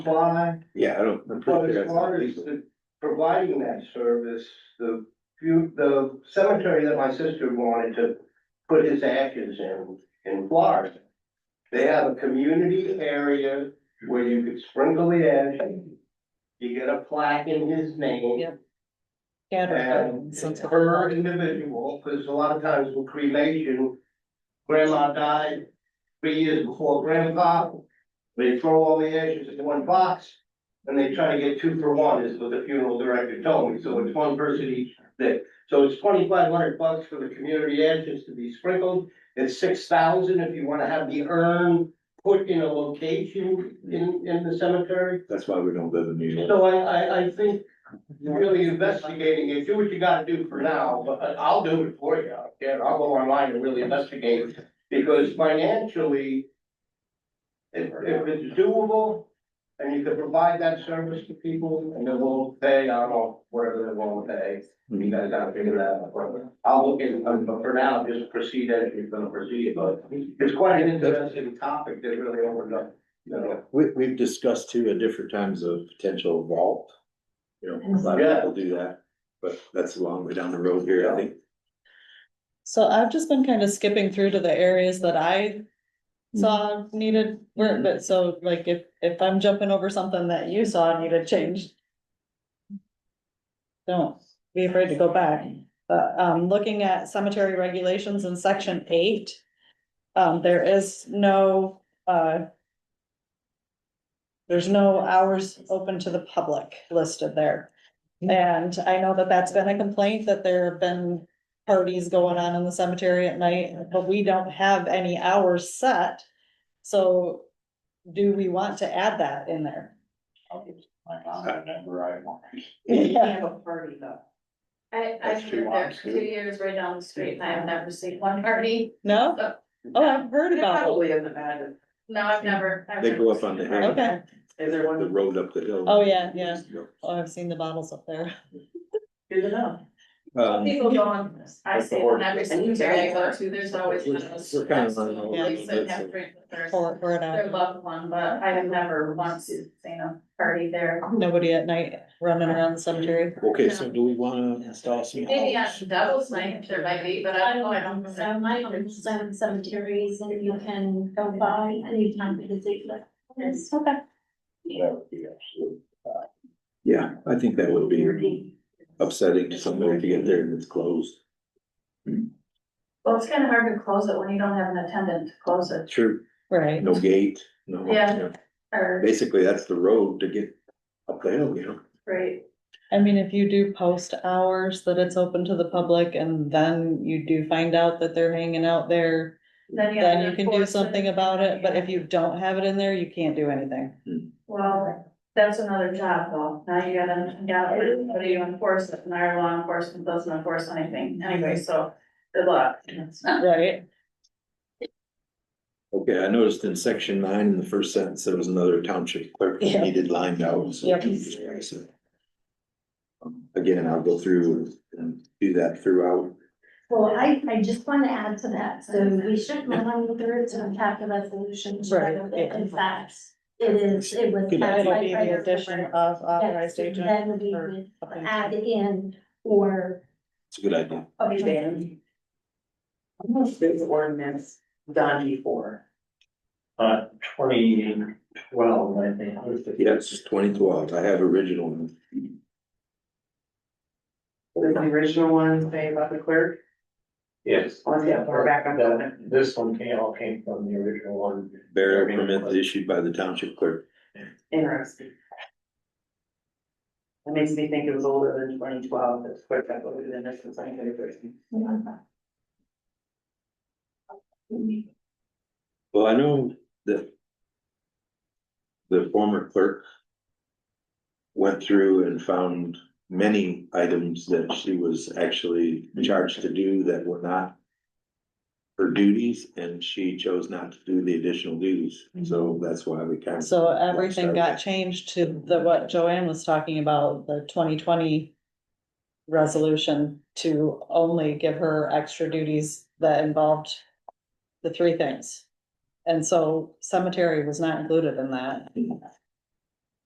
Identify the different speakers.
Speaker 1: Why,
Speaker 2: Yeah, I don't. I'm
Speaker 1: but
Speaker 2: pretty
Speaker 1: as
Speaker 2: sure
Speaker 1: far as
Speaker 2: that's
Speaker 1: the- providing that service, the few, the cemetery that my sister wanted to put his ashes in, in Florida. They have a community area where you could sprinkle the ash. You get a plaque in his name.
Speaker 3: Yeah. Scatter.
Speaker 1: And per individual, because a lot of times with cremation, grandma died three years before grandpa. They throw all the ashes into one box, and they try to get two for one, is what the funeral director told me, so it's one person each day. So it's twenty-five hundred bucks for the community ashes to be sprinkled, it's six thousand if you wanna have the urn put in a location in, in the cemetery.
Speaker 2: That's why we don't live in New York.
Speaker 1: So I, I, I think really investigating it, do what you gotta do for now, but I- I'll do it for you, yeah, I'll go online and really investigate, because financially. If, if it's doable, and you can provide that service to people, and they will pay, I don't know, whatever they want to pay, you guys gotta figure that out. but I'll look in, um, but for now, just proceed as you're gonna proceed, but it's quite an interesting topic that really opened up, you know.
Speaker 2: We, we've discussed too at different times of potential vault. You know, a lot of
Speaker 1: Yeah.
Speaker 2: people do that, but that's a long way down the road here, I think.
Speaker 3: So I've just been kind of skipping through to the areas that I saw needed work, but so like if, if I'm jumping over something that you saw needed changed. Don't be afraid to go back, but, um, looking at cemetery regulations in section eight. Um, there is no, uh. There's no hours open to the public listed there. And I know that that's been a complaint that there have been parties going on in the cemetery at night, but we don't have any hours set. So do we want to add that in there?
Speaker 4: You can't have a party though.
Speaker 5: I,
Speaker 2: That's
Speaker 5: I've
Speaker 2: two
Speaker 5: lived there
Speaker 2: lots,
Speaker 5: two
Speaker 2: too.
Speaker 5: years right down the street and I have never seen one party.
Speaker 3: No? Oh, I've heard about it.
Speaker 4: Probably in the Madden.
Speaker 5: No, I've never. I've
Speaker 2: They
Speaker 5: never
Speaker 2: go up
Speaker 5: seen
Speaker 2: on
Speaker 5: a
Speaker 2: the
Speaker 5: party.
Speaker 2: hill.
Speaker 3: Okay.
Speaker 4: Is there
Speaker 2: The
Speaker 4: one?
Speaker 2: road up the hill.
Speaker 3: Oh, yeah, yeah. Oh, I've seen the bottles up there.
Speaker 4: Good enough.
Speaker 2: Um,
Speaker 5: People go on, I
Speaker 2: That's the
Speaker 5: see
Speaker 2: order.
Speaker 5: them every single day I go to, there's always
Speaker 2: We're-
Speaker 5: one of those.
Speaker 2: we're kind of on the
Speaker 3: order,
Speaker 5: Place that
Speaker 2: that's
Speaker 5: have
Speaker 2: it.
Speaker 5: drink with their,
Speaker 3: Pour it, pour it
Speaker 5: their
Speaker 3: out.
Speaker 5: loved one, but I have never once seen a party there.
Speaker 3: Nobody at night running around the cemetery.
Speaker 2: okay, so do we wanna install some?
Speaker 3: uh,
Speaker 5: Maybe on Devil's Night, there might be, but I don't know, I don't.
Speaker 6: So my uncle's own cemeteries and you can go by anytime for the particular.
Speaker 3: Okay.
Speaker 2: Yeah, I think that would be upsetting to somebody to get there and it's closed.
Speaker 5: Well, it's kind of hard to close it when you don't have an attendant to close it,
Speaker 2: True.
Speaker 3: Right.
Speaker 2: No gate, no.
Speaker 5: Yeah.
Speaker 2: you know,
Speaker 5: or,
Speaker 2: Basically, that's the road to get up the hill, you know?
Speaker 5: right,
Speaker 3: I mean, if you do post hours that it's open to the public and then you do find out that they're hanging out there,
Speaker 5: then you. have
Speaker 3: then
Speaker 5: to
Speaker 3: you can do
Speaker 5: enforce it.
Speaker 3: something about it. But if you don't have it in there, you can't do anything.
Speaker 5: Well, that's another job though, now you gotta, you gotta, how do you enforce it, and our law enforcement doesn't enforce anything, anyway, so, good luck.
Speaker 3: Right?
Speaker 2: Okay, I noticed in section nine, in the first sentence, there was another township clerk that
Speaker 3: Yeah.
Speaker 2: needed lined out. so- Um, Again, I'll go through and do that throughout.
Speaker 6: Well, I, I just want to add to that, so we shouldn't run with it to attack a resolution. to
Speaker 3: Right.
Speaker 6: whether it- In fact, it is, it was.
Speaker 2: Good idea.
Speaker 3: It'll be the addition of
Speaker 6: Yes,
Speaker 3: authorized agent.
Speaker 6: Then we
Speaker 3: or
Speaker 6: would
Speaker 3: appointed.
Speaker 6: add in or.
Speaker 2: It's a good idea.
Speaker 4: Okay, Dan. How much was ordinance done before?
Speaker 7: Uh, twenty twelve, I think.
Speaker 2: Yeah, it's just twenty twelve. I have original. one.
Speaker 4: Was the original one say about the clerk? Oh,
Speaker 7: Yes.
Speaker 4: Let's get more back on
Speaker 7: That-
Speaker 4: that.
Speaker 7: This one came, all came from the original one.
Speaker 2: Burial permit issued by the township clerk.
Speaker 4: Interesting. That makes me think it was older than twenty twelve, that's quite that older than this is nineteen thirty.
Speaker 2: Well, I know that the former clerk went through and found many items that she was actually charged to do that were not her duties, and she chose not to do the additional duties, so that's why we kind of.
Speaker 3: Mm-hmm. So everything got changed to the, what Joanne was talking about, the twenty twenty resolution to only give her extra duties that involved the three things. And so cemetery was not included in that.